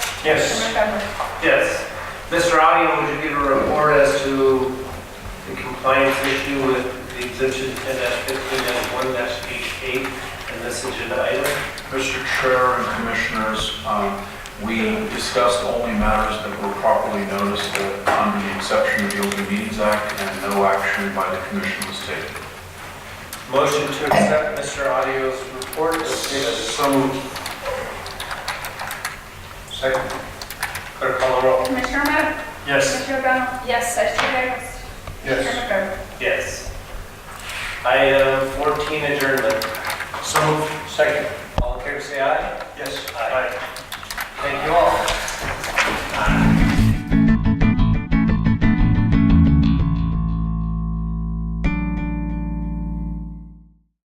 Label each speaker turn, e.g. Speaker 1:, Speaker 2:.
Speaker 1: Yes,
Speaker 2: Mr. Montgomery?
Speaker 1: yes. Mr. Audio, would you give a report as to the compliance issue with the exemption ten fifteen one eight and this agenda item?
Speaker 3: Mr. Chair and Commissioners, um, we discussed only matters that were properly noticed uh, under the exception of the Open Meetings Act, and no action by the Commission was taken.
Speaker 1: Motion to accept Mr. Audio's report as stated.
Speaker 4: So moved. Second.
Speaker 1: Clerk call the roll.
Speaker 2: Commissioner Romero?
Speaker 4: Yes.
Speaker 2: Mr. O'Donnell? Yes. Vice Chair Davis? Mr.
Speaker 4: Yes.
Speaker 2: Montgomery?
Speaker 1: Yes. Item fourteen adjournment.
Speaker 4: So moved. Second.
Speaker 1: All in favor, say aye.
Speaker 4: Yes.
Speaker 1: Aye. Thank you all.